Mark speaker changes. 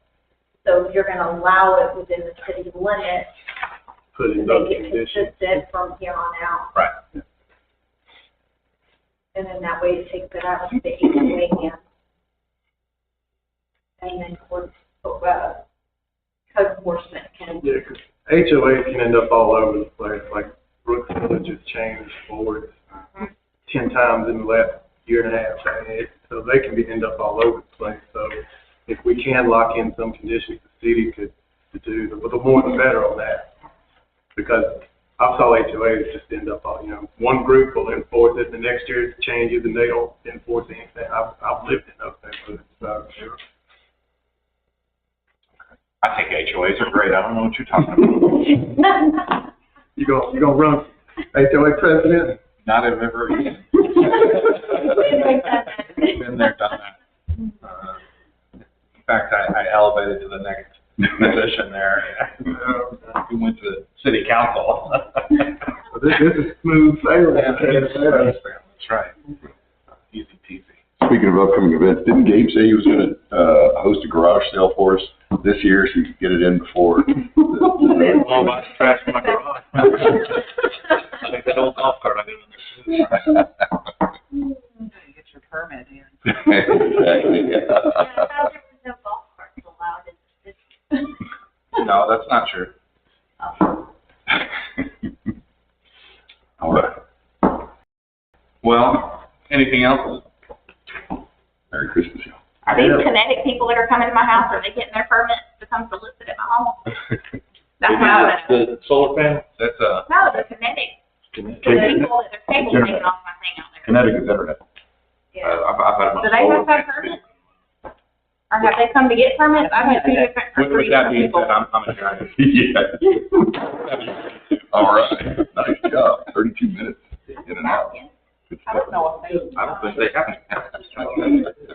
Speaker 1: if you're gonna allow it within the city limits,
Speaker 2: put in those
Speaker 1: make it
Speaker 2: conditions.
Speaker 1: consistent from here on out.
Speaker 2: Right.
Speaker 1: And then that way it takes it out of the HOA hand. And then courts, uh, code enforcement can,
Speaker 2: Yeah, 'cause HOA can end up all over the place, like Brooks Village has changed boards ten times in the last year and a half, I mean, it- so they can be, end up all over the place, so if we can lock in some conditions, the city could to do, the the more the better on that. Because I saw HOAs just end up all, you know, one group will enforce it, the next year it changes, and they don't enforce anything, I've, I've lived in those neighborhoods, so.
Speaker 3: I think HOAs are great, I don't know what you're talking about.
Speaker 2: You gonna, you gonna run HOA president?
Speaker 3: Not have ever been there, done that. Uh, In fact, I, I elevated to the next position there. We went to city council.
Speaker 2: This, this is smooth sailing.
Speaker 3: That's right. Easy peasy.
Speaker 4: Speaking of upcoming events, didn't Gabe say he was gonna, uh, host a garage sale for us this year so we could get it in before? the-
Speaker 3: Well, that's Oh, trash in my garage. Like that old golf cart I didn't understand.
Speaker 5: Get your permit in.
Speaker 4: Exactly,
Speaker 1: Yeah, I
Speaker 4: yeah.
Speaker 1: thought there was no golf carts allowed in the city.
Speaker 3: No, that's not true.
Speaker 4: All right,
Speaker 3: Well, anything else?
Speaker 4: Merry Christmas. y'all.
Speaker 1: Are these kinetic people that are coming to my house, are they getting their permit to come solicit at my home? That's what I want to know.
Speaker 3: The solar panel? That's uh, a,
Speaker 1: No, the kinetic, the people that their cable taking off my thing out there.
Speaker 4: Connecticut Internet.
Speaker 3: I- uh, I've, I've had my.
Speaker 1: Do they have to have permits? Or have they come to get permits? I've had two different, or
Speaker 3: With
Speaker 1: three
Speaker 3: with that
Speaker 1: different
Speaker 3: being
Speaker 1: people.
Speaker 3: said, I'm, I'm a giant.
Speaker 4: Yeah, all right, nice job, thirty-two minutes in and out. Good
Speaker 5: I
Speaker 4: stuff.
Speaker 5: don't know if they.
Speaker 3: I don't think they have.